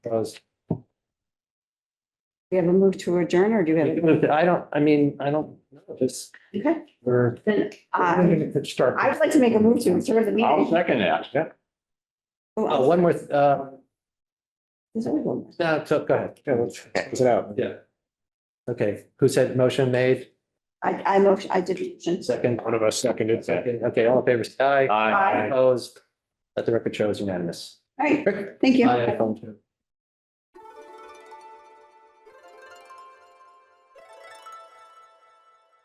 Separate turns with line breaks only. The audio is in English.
Because
We have a move to adjourn or do we have? a-
I don't, I mean, I don't know this,
Okay,
we're.
then, uh, I
I
would like to make a move to adjourn the
I'll
meeting.
second that.
Oh,
Oh, I'll-
one more, th- uh,
there's only one more.
no, so go ahead. Yeah, let's close it out. Yeah. Okay, who said motion made?
I, I motion, I did mention.
Second,
One of us seconded
second, okay, all in favor, say aye.
Aye.
Opposed, let the record show is unanimous.
All right, thank you.
Aye, iPhone two.